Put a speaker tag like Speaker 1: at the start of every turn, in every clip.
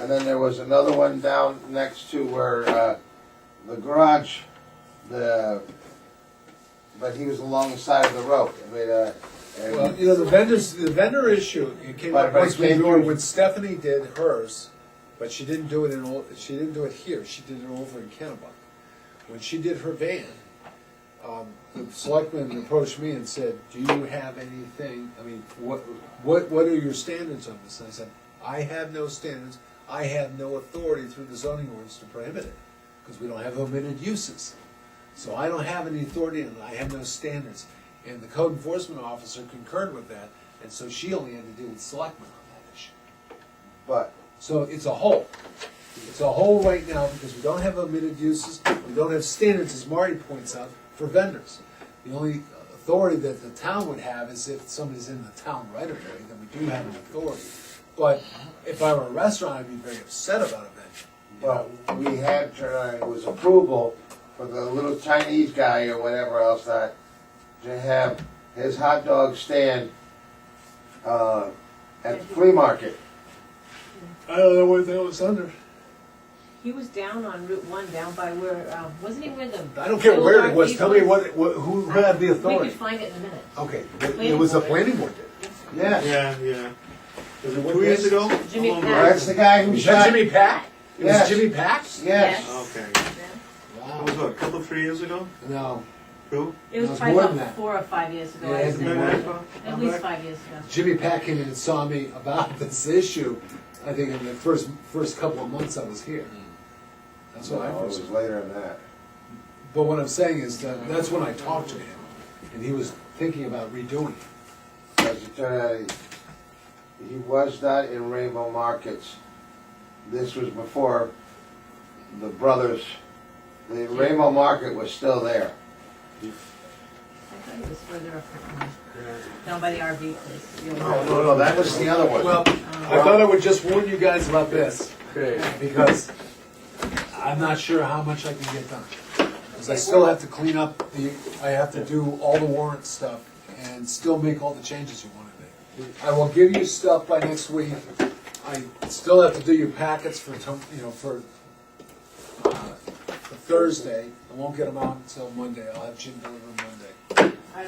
Speaker 1: And then there was another one down next to where, uh, the garage, the, but he was along the side of the road, I mean, uh, and-
Speaker 2: Well, you know, the vendors, the vendor issue, it came
Speaker 1: But-
Speaker 2: up
Speaker 1: but
Speaker 2: once
Speaker 1: it came
Speaker 2: before
Speaker 1: through-
Speaker 2: when Stephanie did hers, but she didn't do it in, Ol- she didn't do it here, she did it over in Kennebuck. When she did her van, um, the selectman approached me and said, do you have anything, I mean, what, what, what are your standards on this? And I said, I have no standards, I have no authority through the zoning ordinance to prohibit it, because we don't have omitted uses. So I don't have any authority and I have no standards. And the code enforcement officer concurred with that, and so she only had to deal with selectmen on that issue.
Speaker 1: but,
Speaker 2: So it's a whole. It's a whole right now because we don't have omitted uses, we don't have standards, as Marty points out, for vendors. The only authority that the town would have is if somebody's in the town right of way, then we do have an authority. But if I were a restaurant, I'd be very upset about a vendor.
Speaker 1: but we had, uh, it was approval for the little Chinese guy or whatever else that, to have his hot dog stand, uh, at the flea market.
Speaker 2: I don't know what that was under.
Speaker 3: He was down on Route One, down by where, um, wasn't he where the?
Speaker 2: I don't care where it was,
Speaker 3: Boulevard
Speaker 2: tell me
Speaker 3: people-
Speaker 2: what, what- who had the
Speaker 3: We could
Speaker 2: authority?
Speaker 3: find it in a minute.
Speaker 2: Okay, it it was the planning board did.
Speaker 1: Yes,
Speaker 4: Yeah, yeah.
Speaker 2: Was it
Speaker 4: Two years ago?
Speaker 3: Jimmy
Speaker 4: Along
Speaker 3: Pack.
Speaker 1: that's the guy who
Speaker 2: Was that
Speaker 1: shot.
Speaker 2: Jimmy Pack? It was
Speaker 1: Yes.
Speaker 2: Jimmy Pack?
Speaker 1: Yes.
Speaker 4: the-
Speaker 3: Yes.
Speaker 4: Okay. That was
Speaker 2: Wow.
Speaker 4: what, a couple, three years ago?
Speaker 2: No,
Speaker 4: Two?
Speaker 3: It
Speaker 2: It was
Speaker 3: was probably
Speaker 2: more than
Speaker 3: about
Speaker 2: that.
Speaker 3: four or five years ago,
Speaker 2: Yeah,
Speaker 3: I
Speaker 2: it had to
Speaker 3: think.
Speaker 2: be more
Speaker 4: than that.
Speaker 3: At least five years ago.
Speaker 2: Jimmy Pack came in and saw me about this issue, I think in the first, first couple of months I was here. That's
Speaker 1: No,
Speaker 2: what I
Speaker 1: it
Speaker 2: first,
Speaker 1: was later than that.
Speaker 2: but what I'm saying is that, that's when I talked to him, and he was thinking about redoing it.
Speaker 1: As it turned out, uh, he- he was not in Rainbow Markets. This was before the brothers, the Rainbow Market was still there.
Speaker 3: I thought it was further up. Down by the RV
Speaker 2: Oh,
Speaker 3: place. you know.
Speaker 1: Oh, no, no, that was the other one.
Speaker 2: Well, I thought I would just warn you guys about this, because I'm not sure how much I can get done. Because I still have to clean up the, I have to do all the warrant stuff and still make all the changes you want to make. I will give you stuff by next week. I still have to do your packets for, tom- you know, for uh, for Thursday. I won't get them out until Monday. I'll have Jim deliver them Monday.
Speaker 3: I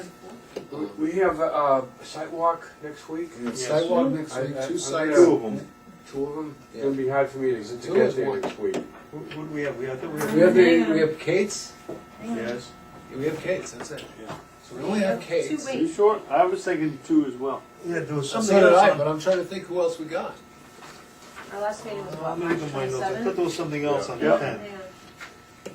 Speaker 3: don't-
Speaker 5: We- We have a uh, sidewalk next week,
Speaker 2: And it's
Speaker 4: Yes.
Speaker 2: Sidewalk next
Speaker 5: I-
Speaker 2: week,
Speaker 5: I-
Speaker 2: two
Speaker 5: I'm
Speaker 2: sites.
Speaker 4: Two of them.
Speaker 5: two of them.
Speaker 2: Yeah.
Speaker 5: It's gonna be hard for me to
Speaker 2: it
Speaker 5: to
Speaker 2: two
Speaker 5: get
Speaker 2: is
Speaker 5: there
Speaker 2: one?
Speaker 5: next week.
Speaker 4: Who, who do we have? We have, I thought we
Speaker 2: We
Speaker 4: have.
Speaker 2: have, the- we have Kate's.
Speaker 4: Yes.
Speaker 2: We have Kate's, that's it.
Speaker 4: Yeah.
Speaker 2: So we only have
Speaker 3: Two
Speaker 2: Kate's.
Speaker 3: weeks.
Speaker 6: sure? I was thinking two as well.
Speaker 4: Yeah, there was
Speaker 2: So
Speaker 4: something
Speaker 2: did I,
Speaker 4: else.
Speaker 2: but
Speaker 4: on-
Speaker 2: I'm trying to think who else we got.
Speaker 3: Our last meeting was
Speaker 4: I'm
Speaker 3: what, March
Speaker 4: reading my notes. I thought
Speaker 3: twenty-seven?
Speaker 4: there was something else on the
Speaker 6: Yeah.
Speaker 4: ten.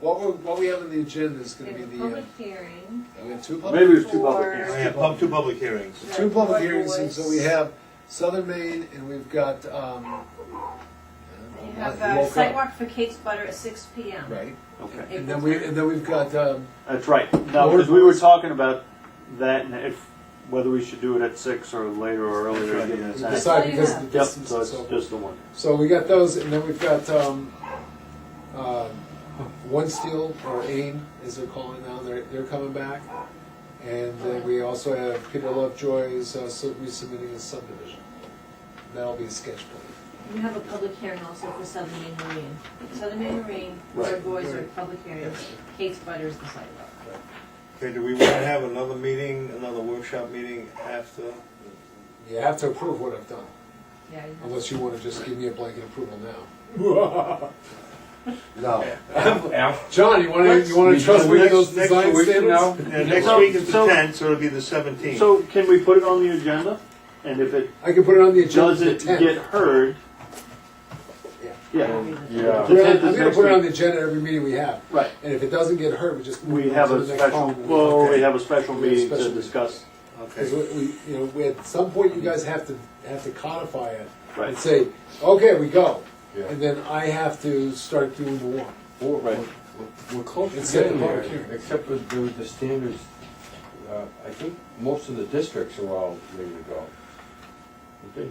Speaker 2: What we, what we have on the agenda is gonna
Speaker 3: Okay,
Speaker 2: be
Speaker 3: the
Speaker 2: the, uh,
Speaker 3: public hearing.
Speaker 2: we have two public,
Speaker 6: Maybe it was two public
Speaker 3: For-
Speaker 4: We
Speaker 6: hearings.
Speaker 4: have Oh, pub- two public hearings.
Speaker 2: two public hearings, and
Speaker 3: Boards.
Speaker 2: so we have Southern Maine, and we've got, um.
Speaker 3: You
Speaker 2: I
Speaker 3: have
Speaker 2: don't know,
Speaker 3: a
Speaker 2: woke up,
Speaker 3: sidewalk for Kate's Butter at six P M.
Speaker 2: Right,
Speaker 6: Okay,
Speaker 2: and then we, and then we've got, um,
Speaker 6: that's right. Now, because we were talking about that and if, whether we should do it at six or later or earlier.
Speaker 4: That's right,
Speaker 6: given the
Speaker 3: That's
Speaker 6: time.
Speaker 2: decide
Speaker 3: all you
Speaker 2: because of
Speaker 3: have.
Speaker 2: the
Speaker 6: Yep,
Speaker 2: distance
Speaker 6: so
Speaker 2: and
Speaker 6: it's
Speaker 2: so forth.
Speaker 6: just the one.
Speaker 2: So we got those, and then we've got, um, um, One Steel, or AIM, as they're calling now, they're, they're coming back. And then we also have Peter Lovejoy's uh, sub- resubmitting his subdivision. That'll be a sketch plan.
Speaker 3: You have a public hearing also for Southern Maine Marine. Southern Maine Marine, their
Speaker 2: Right.
Speaker 3: boys are public hearing, Kate's Butter is the sidewalk.
Speaker 4: Okay, do we want to have another meeting, another workshop meeting after?
Speaker 2: You have to approve what I've done,
Speaker 3: Yeah, you have-
Speaker 2: unless you wanna just give me a blanket approval now.
Speaker 1: No,
Speaker 2: John, you wanna, you wanna trust me with those
Speaker 4: Next-
Speaker 2: design
Speaker 4: next week
Speaker 2: standards?
Speaker 5: now.
Speaker 4: Yeah, next
Speaker 6: So-
Speaker 4: week is the
Speaker 6: so-
Speaker 4: tenth, so it'll be the seventeenth.
Speaker 6: So can we put it on the agenda? And if it
Speaker 2: I can put it on the agenda for the
Speaker 6: doesn't
Speaker 2: tenth.
Speaker 6: get heard,
Speaker 2: Yeah.
Speaker 6: yeah,
Speaker 2: I'm
Speaker 6: The
Speaker 2: gonna-
Speaker 6: 10th is
Speaker 2: I'm gonna
Speaker 6: next
Speaker 2: put it on the
Speaker 6: week.
Speaker 2: agenda every meeting we have,
Speaker 6: right.
Speaker 2: and if it doesn't get heard, we just. move
Speaker 6: We
Speaker 2: it
Speaker 6: have
Speaker 2: to
Speaker 6: a
Speaker 2: the next
Speaker 6: special,
Speaker 2: call.
Speaker 6: well, we have a special
Speaker 2: We have a
Speaker 6: meeting to
Speaker 2: special meeting.
Speaker 6: discuss.
Speaker 2: Because
Speaker 4: Okay.
Speaker 2: we, we, you know, we, at some point, you guys have to, have to codify it.
Speaker 6: Right.
Speaker 2: And say, okay, we go. And then I have to start doing the warrant.
Speaker 6: Right.
Speaker 5: We're close
Speaker 2: It's
Speaker 5: to getting
Speaker 2: getting
Speaker 5: there,
Speaker 2: public hearing.
Speaker 5: except with the, the standards, uh, I think most of the districts are all ready to go. Okay.
Speaker 2: You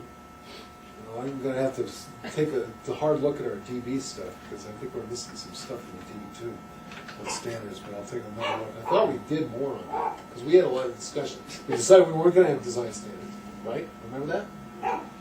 Speaker 2: know, I'm gonna have to s- take a, a hard look at our DB stuff, because I think we're missing some stuff in the DB too, on standards, but I'll take another look. I thought we did more on that, because we had a lot of discussion. We decided we weren't gonna have design standards, right? Remember that?